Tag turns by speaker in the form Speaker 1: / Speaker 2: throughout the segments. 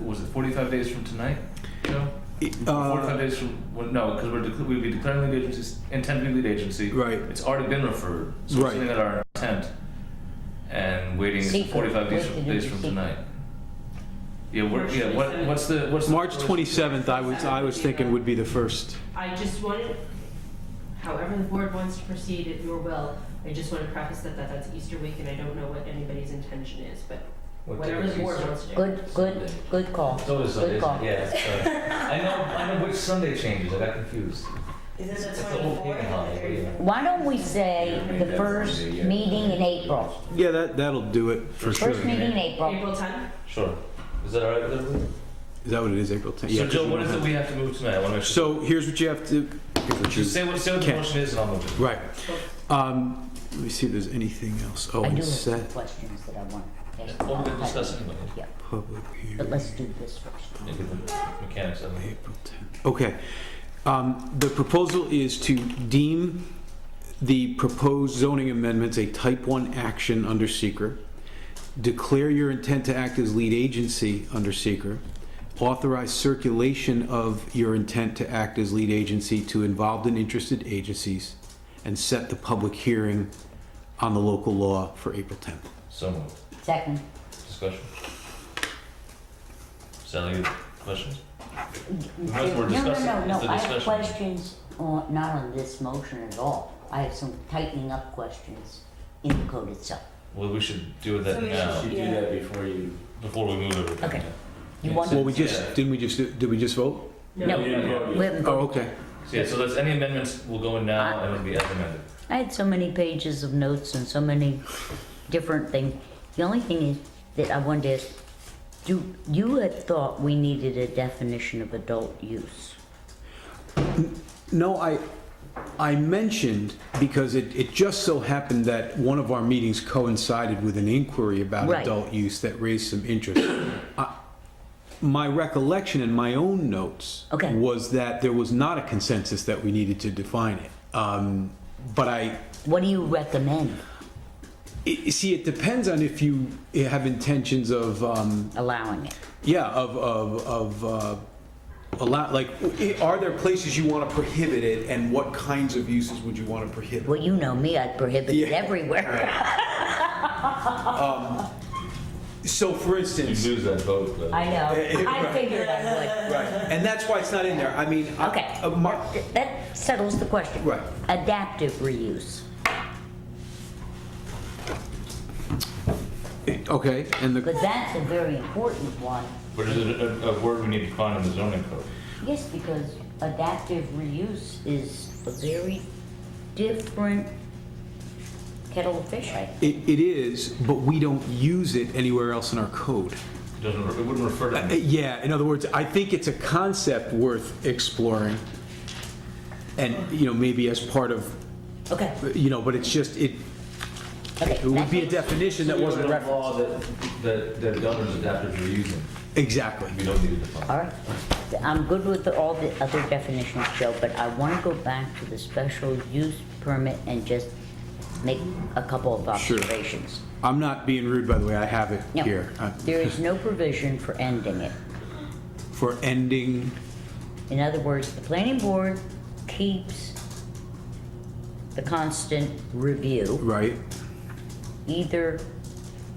Speaker 1: was it 45 days from tonight, Joe?
Speaker 2: Uh,
Speaker 1: 45 days from, well, no, because we're, dec- we'd be declaring lead agency, intent to be lead agency.
Speaker 2: Right.
Speaker 1: It's already been referred, so
Speaker 2: Right.
Speaker 1: we're sitting at our intent and waiting
Speaker 3: Secret.
Speaker 1: 45 days
Speaker 3: Wait,
Speaker 1: from,
Speaker 3: did
Speaker 1: days
Speaker 3: you
Speaker 1: from
Speaker 3: see-
Speaker 1: tonight. Yeah, what, yeah, what, what's the, what's the?
Speaker 2: March 27th, I was, I was thinking would be the first.
Speaker 4: I just wanted, however the board wants to proceed at your will, I just want to preface that, that that's Easter week and I don't know what anybody's intention is, but whatever the board wants to do.
Speaker 3: Good, good, good call.
Speaker 5: So is
Speaker 3: Good
Speaker 5: Sunday,
Speaker 3: call.
Speaker 5: yeah. sorry. I know, I know which Sunday changes, I got confused.
Speaker 6: Is it
Speaker 5: It's
Speaker 6: the
Speaker 5: the whole
Speaker 6: twenty-fourth or
Speaker 5: pagan
Speaker 6: the
Speaker 5: holiday, yeah.
Speaker 6: thirty-first?
Speaker 3: Why don't we say the first meeting in April?
Speaker 2: Yeah, that, that'll do it for sure.
Speaker 3: First meeting in April.
Speaker 4: April tenth?
Speaker 5: Sure. Is that all right with everybody?
Speaker 2: Is that what it is, April 10th?
Speaker 1: So Joe, what is it we have to move tonight? I want to make sure.
Speaker 2: So here's what you have to, here's what you-
Speaker 1: Just say what, say what the
Speaker 2: Can't.
Speaker 1: motion is and I'll move it.
Speaker 2: right. Um, Let me see if there's anything else. Oh,
Speaker 3: I do
Speaker 2: and
Speaker 3: have some
Speaker 2: set
Speaker 3: questions that I want to ask.
Speaker 1: What we're discussing anyway.
Speaker 3: Yeah,
Speaker 2: public
Speaker 3: but
Speaker 2: hearing,
Speaker 3: let's do this first.
Speaker 1: Maybe the mechanics of it.
Speaker 2: April 10th. Okay. Um, The proposal is to deem the proposed zoning amendments a type 1 action under seeker, declare your intent to act as lead agency under seeker, authorize circulation of your intent to act as lead agency to involved and interested agencies, and set the public hearing on the local law for April 10th.
Speaker 1: So moved.
Speaker 3: Second,
Speaker 1: Discussion. Sally, you have questions?
Speaker 3: no,
Speaker 1: As we're
Speaker 3: no,
Speaker 1: discussing,
Speaker 3: no, no,
Speaker 1: is the
Speaker 3: I have
Speaker 1: discussion.
Speaker 3: questions, on not on this motion at all. I have some tightening up questions in the code itself.
Speaker 1: Well, we should do that
Speaker 6: So we
Speaker 1: now,
Speaker 6: should-
Speaker 5: You do
Speaker 6: Yeah.
Speaker 5: that before you.
Speaker 1: before we move everything.
Speaker 3: Okay. You
Speaker 1: Yeah,
Speaker 3: want-
Speaker 1: so-
Speaker 2: Well, we just,
Speaker 1: yeah.
Speaker 2: didn't we just, did we just vote?
Speaker 3: No,
Speaker 5: we didn't vote yet.
Speaker 3: we haven't
Speaker 2: Oh,
Speaker 3: voted.
Speaker 2: okay.
Speaker 1: Yeah, so that's, any amendments will go in now and it'll be as amended.
Speaker 3: I had so many pages of notes and so many different things. The only thing is that I wanted to ask, do, you had thought we needed a definition of adult use.
Speaker 2: No, I, I mentioned, because it, it just so happened that one of our meetings coincided with an inquiry about
Speaker 3: Right.
Speaker 2: adult use that raised some interest. I- My recollection in my own notes
Speaker 3: Okay.
Speaker 2: was that there was not a consensus that we needed to define it. Um, But I,
Speaker 3: What do you recommend?
Speaker 2: i- see, it depends on if you have intentions of, um,
Speaker 3: allowing it.
Speaker 2: Yeah, of, of, of, uh, a lot, like, i- are there places you want to prohibit it, and what kinds of uses would you want to prohibit?
Speaker 3: Well, you know me, I'd prohibit it
Speaker 2: Yeah.
Speaker 3: everywhere.
Speaker 2: So, for
Speaker 1: You
Speaker 2: instance,
Speaker 1: lose that vote, but.
Speaker 3: I know, I
Speaker 2: Right.
Speaker 3: figured I
Speaker 2: right, and that's why it's not in there, I mean. I-
Speaker 3: Okay.
Speaker 2: uh, my-
Speaker 3: would. That settles the question.
Speaker 2: Right.
Speaker 3: Adaptive reuse,
Speaker 2: Okay, and the,
Speaker 3: because that's a very important one.
Speaker 1: But is it a, a word we need to find in the zoning code?
Speaker 3: Yes, because adaptive reuse is a very different kettle of fish.
Speaker 2: it, it is, but we don't use it anywhere else in our code.
Speaker 1: It doesn't, re- it wouldn't refer
Speaker 2: Uh,
Speaker 1: to.
Speaker 2: Yeah, in other words, I think it's a concept worth exploring, and, you know, maybe as part of, uh,
Speaker 3: Okay,
Speaker 2: you know, but it's just, it,
Speaker 3: okay.
Speaker 2: it would be a
Speaker 3: that's it.
Speaker 2: definition that wasn't
Speaker 5: We have a
Speaker 2: referenced.
Speaker 5: law that, that, that governs adaptive reusing,
Speaker 2: Exactly.
Speaker 5: we don't need to define.
Speaker 3: All right, I'm good with all the other definitions, Joe, but I want to go back to the special use permit and just make a couple of
Speaker 2: Sure.
Speaker 3: observations.
Speaker 2: I'm not being rude, by the way, I have it
Speaker 3: No,
Speaker 2: here. Uh,
Speaker 3: There is no provision for ending it.
Speaker 2: For ending,
Speaker 3: In other words, the planning board keeps the constant review.
Speaker 2: right?
Speaker 3: Either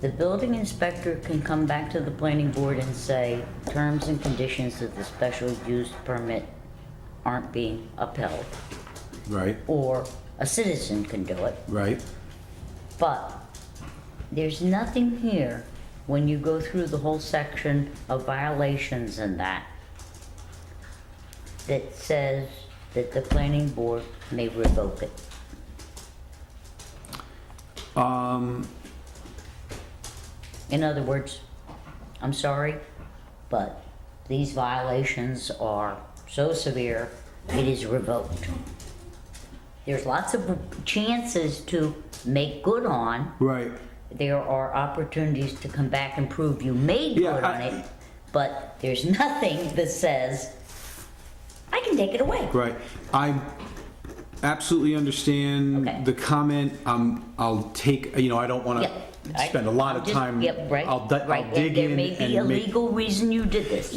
Speaker 3: the building inspector can come back to the planning board and say, terms and conditions of the special use permit aren't being upheld,
Speaker 2: Right,
Speaker 3: or a citizen can do it.
Speaker 2: right.
Speaker 3: But there's nothing here when you go through the whole section of violations and that that says that the planning board may revoke it.
Speaker 2: Um,
Speaker 3: In other words, I'm sorry, but these violations are so severe, it is revoked. There's lots of chances to make good on,
Speaker 2: right.
Speaker 3: there are opportunities to come back and prove you made
Speaker 2: Yeah,
Speaker 3: good on
Speaker 2: I-
Speaker 3: it, but there's nothing that says, I can take it away.
Speaker 2: Right. I, absolutely
Speaker 3: Okay.
Speaker 2: understand the comment. Um, I'll take, you know, I don't want
Speaker 3: Yep.
Speaker 2: to
Speaker 3: I-
Speaker 2: spend a lot of
Speaker 3: just-
Speaker 2: time.
Speaker 3: Yep, right,
Speaker 2: I'll di-
Speaker 3: right.
Speaker 2: I'll
Speaker 3: And
Speaker 2: dig in
Speaker 3: There may be a
Speaker 2: and make
Speaker 3: legal reason you did this.